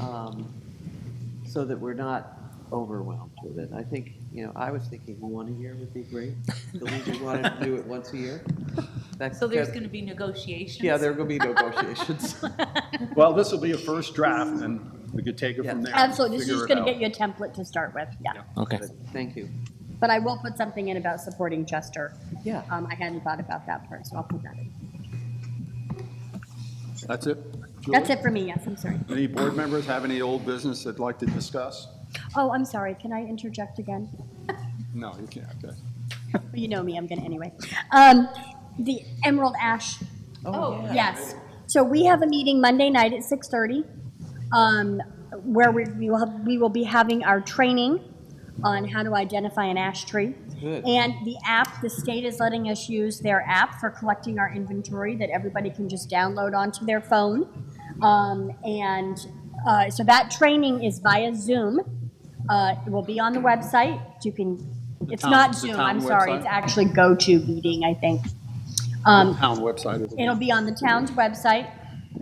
um, so that we're not overwhelmed with it. I think, you know, I was thinking one a year would be great. The Legion wanted to do it once a year. That- So there's that- going to be negotiations? Yeah, there are going to be negotiations. Well, this will be a first draft, and we could take it from Yeah. there. and Absolutely, this is figure just it gonna out. get you a template to start with, yeah. Okay. Thank you. But I will put something in about supporting Chester. Yeah. Um, I hadn't thought about that part, so I'll put that in. That's it? Julie? That's it for me, yes, I'm sorry. Any board members have any old business they'd like to discuss? Oh, I'm sorry, can I interject again? No, you can't, okay. You know me, I'm gonna anyway. Um, the Emerald Ash Oh, Yes. So we have a meeting Monday night at 6:30, um, where we we will, have- we will be having our training on how to identify an ash tree. Good. And the app, the state is letting us use their app for collecting our inventory that everybody can just download onto their phone. Um, And uh, so that training is via Zoom. Uh, It will be on the website. You can, it's town- not the Zoom, town I'm sorry. website? It's actually GoTo Meeting, I think. Um, Town website. it'll be- It'll be on the town's website,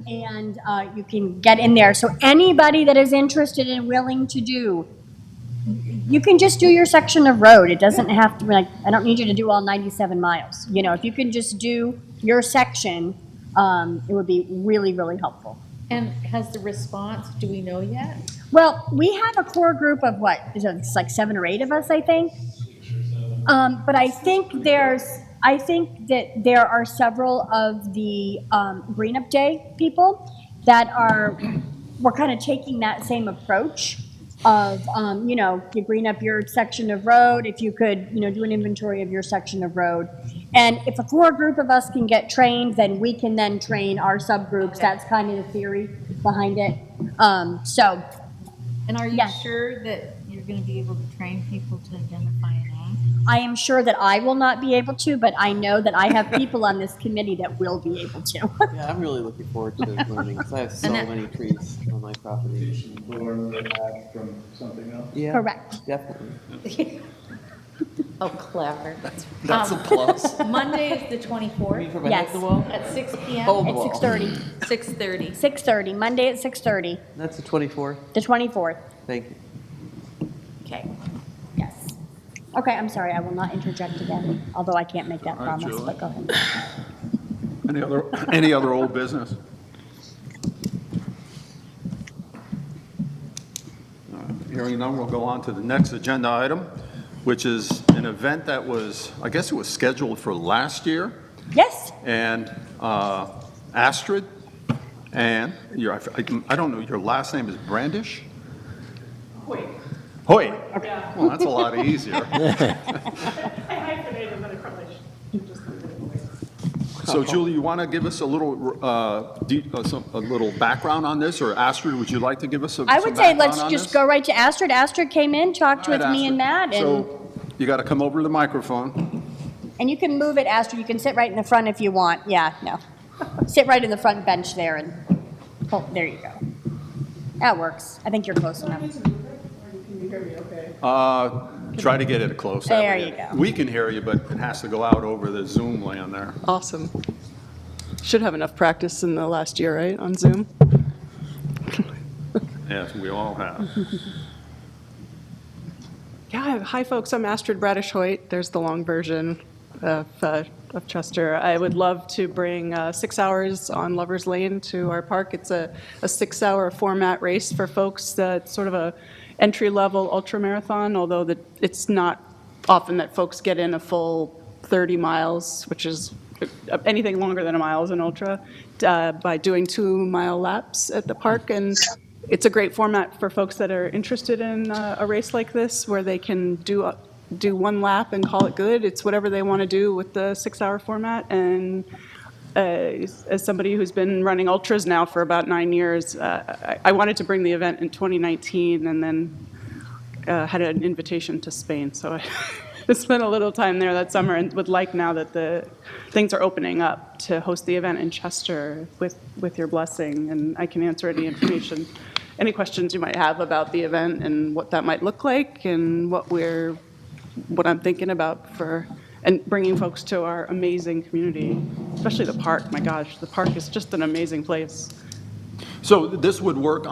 and uh, you can get in there. So anybody that is interested and willing to do, you can just do your section of road. It doesn't have to, be like, I don't need you to do all 97 miles. You know, if you can just do your section, um, it would be really, really helpful. and has the response, do we know yet? Well, we have a core group of what, is it- it's like seven or eight of us, I think. Um, but I think there's, I think that there are several of the, um, Green Up Day people that are, we're kind of taking that same approach of, um, you know, you green up your section of road, if you could, you know, do an inventory of your section of road. And if a core group of us can get trained, then we can then train our subgroups. That's kind of the theory behind it. Um, so And are you Yes. sure that you're going to be able to train people to identify an act? I am sure that I will not be able to, but I know that I have people on this committee that will be able to. Yeah, I'm really looking forward to learning, because I have so And that- many trees on my property. From something else? Yeah, Correct. Definitely. Oh, clever. That's a Um, plus. Monday is the You mean 24th from a head to Yes. the wall? at six Oh. PM, At Well. 6:30, 6:30. 6:30, Monday at 6:30, That's the 24th. the 24th. Thank you. Okay. Yes. Okay, I'm sorry, I will not interject again, although I can't make that All right, promise, Julie. but go ahead. Any other, any other old business? Uh, Hearing none, we'll go on to the next agenda item, which is an event that was, I guess it was scheduled for last year, Yes, and uh, Astrid, and your, I I don't know, your last name is Brandish? Hoy. Hoy? Well, that's a lot easier. I hyphenated and then I probably should just leave it away. So Julie, you want to give us a little, uh, de- uh, some- a little background on this, or Astrid, would you like to give us some I some would say background let's on just this? go right to Astrid. Astrid came in, talked All right, with me and Astrid. Matt, and, So you got to come over to the microphone. and you can move it, Astrid, you can sit right in the front if you want, yeah, no. Sit right in the front bench there and, oh, there you go. That works, I think you're close enough. Can you hear me okay? Uh, Try to get it close. that There way. you go. We can hear you, but it has to go out over the Zoom land there. Awesome. Should have enough practice in the last year, right, on Zoom? Yes, we all have. Yeah, hi folks, I'm Astrid Bradish Hoyt. There's the long version of, uh, of Chester. I would love to bring uh, six hours on Lover's Lane to our park. It's a, a six hour format race for folks that's sort of a entry level ultra marathon, although the, it's not often that folks get in a full 30 miles, which is uh, anything longer than a mile is an ultra, uh, by doing two mile laps at the park. And it's a great format for folks that are interested in uh, a race like this, where they can do, a- do one lap and call it good. It's whatever they want to do with the six-hour format. And uh, as as somebody who's been running ultras now for about nine years, uh, I I wanted to bring the event in 2019, and then uh, had an invitation to Spain, so I spent a little time there that summer and would like now that the things are opening up to host the event in Chester with, with your blessing, and I can answer any information, any questions you might have about the event and what that might look like and what we're, what I'm thinking about for, and bringing folks to our amazing community, especially the park. My gosh, the park is just an amazing place. So this would work